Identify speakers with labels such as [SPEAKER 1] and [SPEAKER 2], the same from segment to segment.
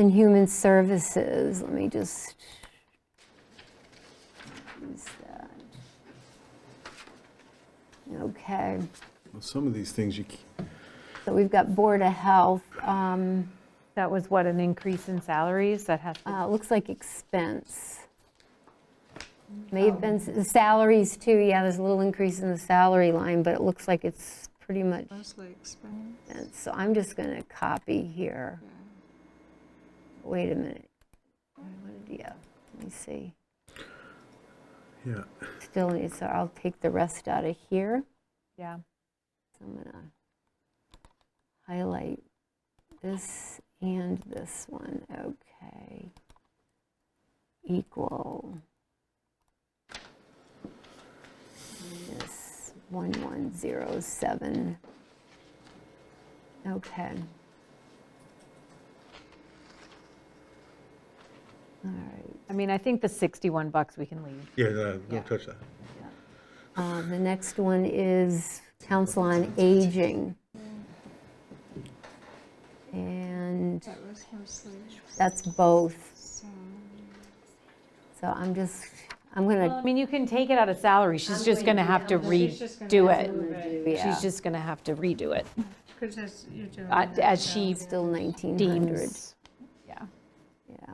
[SPEAKER 1] And Human Services, let me just. use that. Okay,
[SPEAKER 2] Well, Some of these things you, c-
[SPEAKER 1] so we've got Board of Health, um,
[SPEAKER 3] That was what, an increase in salaries that has to,
[SPEAKER 1] uh, looks like expense. May have been, s- salaries too, yeah, there's a little increase in the salary line, but it looks like it's pretty much,
[SPEAKER 4] Mostly expense.
[SPEAKER 1] expense. so I'm just going to copy here. Wait a minute. What did- Yeah, let me see.
[SPEAKER 2] yeah,
[SPEAKER 1] Still, need- so I'll take the rest out of here.
[SPEAKER 3] yeah.
[SPEAKER 1] So I'm gonna highlight this and this one, okay. Equal. Minus 1107. Okay. All right.
[SPEAKER 3] I mean, I think the 61 bucks we can leave.
[SPEAKER 2] yeah, no, don't touch that.
[SPEAKER 1] Uh, The next one is Council on Aging. And
[SPEAKER 4] That was mostly
[SPEAKER 1] that's both,
[SPEAKER 4] salary.
[SPEAKER 1] so I'm just, I'm gonna,
[SPEAKER 3] I mean, you can take it out of salary, she's just going to have to redo it.
[SPEAKER 1] yeah,
[SPEAKER 3] She's just going to have to redo it,
[SPEAKER 4] Because as you're doing.
[SPEAKER 3] uh,
[SPEAKER 4] that
[SPEAKER 3] as
[SPEAKER 4] now.
[SPEAKER 3] she
[SPEAKER 1] still 1,900,
[SPEAKER 3] deems. Yeah.
[SPEAKER 1] yeah.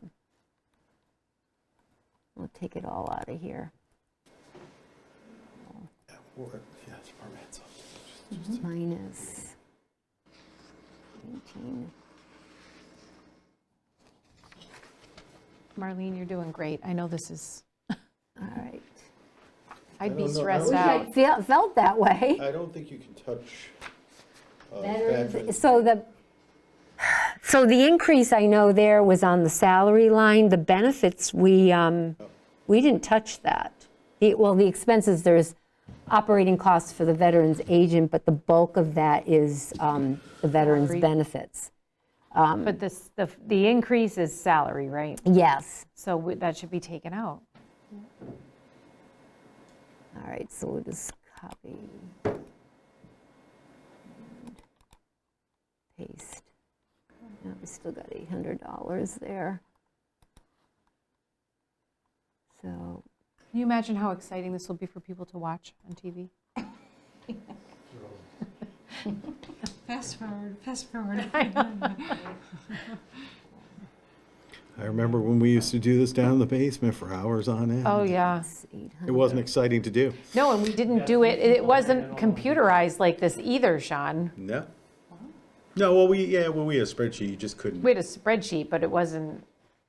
[SPEAKER 1] We'll take it all out of here, minus 19.
[SPEAKER 3] Marlene, you're doing great. I know this is,
[SPEAKER 1] All right.
[SPEAKER 3] I'd be
[SPEAKER 5] don't know. I
[SPEAKER 3] stressed
[SPEAKER 5] was
[SPEAKER 3] out.
[SPEAKER 1] I feel- Felt that way.
[SPEAKER 5] I don't think you can touch. uh,
[SPEAKER 1] Veteran-
[SPEAKER 5] veteran-
[SPEAKER 1] So the, so the increase I know there was on the salary line, the benefits, we, um, we didn't touch that. The- Well, the expenses, there's operating costs for the veterans agent, but the bulk of that is um, the veterans
[SPEAKER 3] Salary.
[SPEAKER 1] benefits.
[SPEAKER 5] um,
[SPEAKER 3] But this, the, the increase is salary, right?
[SPEAKER 1] Yes,
[SPEAKER 3] So we- that should be taken out.
[SPEAKER 1] all right, so we'll just copy. and Paste. Now we still got $800 there. So
[SPEAKER 3] Can you imagine how exciting this will be for people to watch on TV?
[SPEAKER 4] Fast forward, fast forward.
[SPEAKER 2] I remember when we used to do this down in the basement for hours on end.
[SPEAKER 3] Oh, yeah.
[SPEAKER 1] It's 800.
[SPEAKER 2] It wasn't exciting to do.
[SPEAKER 3] No, and we didn't do it, it wasn't computerized like this either, Sean.
[SPEAKER 2] No. No, well, we, yeah, well, we had a spreadsheet, you just couldn't,
[SPEAKER 3] We had a spreadsheet, but it wasn't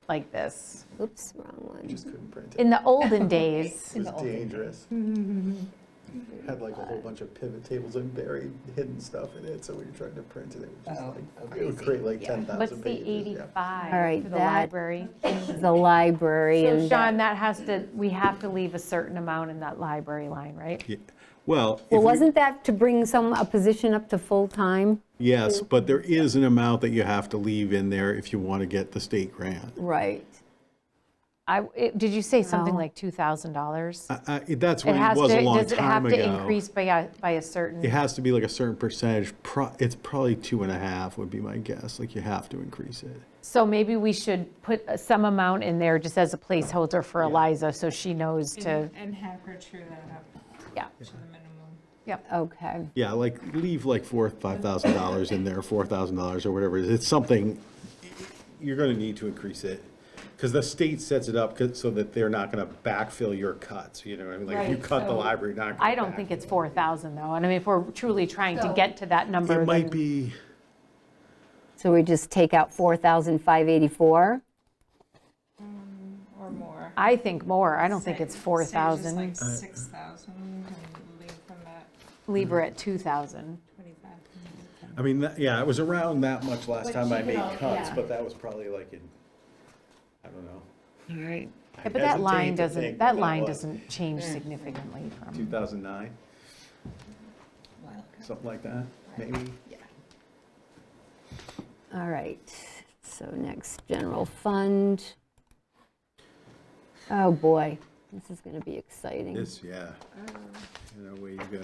[SPEAKER 3] like this.
[SPEAKER 1] Oops, wrong one.
[SPEAKER 5] Just couldn't print it.
[SPEAKER 3] In the olden days,
[SPEAKER 5] It was dangerous. Mm-hmm. Uh. Had like a whole bunch of pivot tables and buried hidden stuff in it, so when you're trying to print it, it would just like, it would create like 10,000 pages.
[SPEAKER 3] what's the
[SPEAKER 5] yeah.
[SPEAKER 3] 85
[SPEAKER 1] All right,
[SPEAKER 3] for the
[SPEAKER 1] that-
[SPEAKER 3] library?
[SPEAKER 1] The library
[SPEAKER 3] So
[SPEAKER 1] and, that-
[SPEAKER 3] Sean, that has to, we have to leave a certain amount in that library line, right?
[SPEAKER 2] Yeah. well. if
[SPEAKER 1] well,
[SPEAKER 2] we-
[SPEAKER 1] wasn't that to bring some, a position up to full-time?
[SPEAKER 2] Yes, but there is an amount that you have to leave in there if you want to get the state grant.
[SPEAKER 1] Right.
[SPEAKER 3] I, it- did you say something
[SPEAKER 1] No.
[SPEAKER 3] like $2,000?
[SPEAKER 2] I- I- That's
[SPEAKER 3] It
[SPEAKER 2] when Uh, it
[SPEAKER 3] has to,
[SPEAKER 2] was a long
[SPEAKER 3] does it have
[SPEAKER 2] time
[SPEAKER 3] to
[SPEAKER 2] ago.
[SPEAKER 3] increase by a, by a certain?
[SPEAKER 2] It has to be like a certain percentage, pro- it's probably two and a half would be my guess, like you have to increase it.
[SPEAKER 3] So maybe we should put some amount in there just as a placeholder for Eliza, so she knows to,
[SPEAKER 4] And and have her chew that up
[SPEAKER 3] yeah,
[SPEAKER 4] to the minimum.
[SPEAKER 1] Okay,
[SPEAKER 2] Yeah, like leave like four, five thousand dollars in there, four thousand dollars or whatever. it is. It's something, you're gonna need to increase it. Cause the state sets it up 'cause- so that they're not gonna backfill your cuts, you know, what I mean, like if you
[SPEAKER 3] Right,
[SPEAKER 2] cut the
[SPEAKER 3] so
[SPEAKER 2] library, you're not. gonna
[SPEAKER 3] I don't think
[SPEAKER 2] backfill.
[SPEAKER 3] it's 4,000 though, and I mean, if we're truly trying to
[SPEAKER 1] So-
[SPEAKER 3] get to that number,
[SPEAKER 2] It might
[SPEAKER 3] then
[SPEAKER 2] be,
[SPEAKER 1] so we just take out 4,584?
[SPEAKER 4] Or more.
[SPEAKER 3] I think more, I don't think it's
[SPEAKER 4] Say- say just
[SPEAKER 3] 4,000,
[SPEAKER 4] like 6,000 and leave from that
[SPEAKER 3] leave her at 2,000.
[SPEAKER 4] 25.
[SPEAKER 2] I mean, that- yeah, it was around that much last time I made
[SPEAKER 1] all-
[SPEAKER 2] cuts,
[SPEAKER 1] yeah.
[SPEAKER 2] but that was probably like in, I don't know.
[SPEAKER 3] Yeah, But that line doesn't, that line
[SPEAKER 2] not
[SPEAKER 3] doesn't change significantly
[SPEAKER 2] Two
[SPEAKER 3] from,
[SPEAKER 2] thousand nine, something like that, maybe?
[SPEAKER 1] All right, so next, general fund. Oh, boy, this is going to be exciting.
[SPEAKER 2] This, yeah. You know, where you go.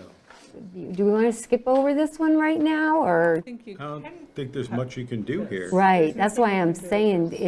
[SPEAKER 1] Do we want to skip over this one right now, or?
[SPEAKER 4] I think you
[SPEAKER 2] I don't
[SPEAKER 4] can
[SPEAKER 2] think there's much you can do here.
[SPEAKER 1] Right, that's why I'm saying,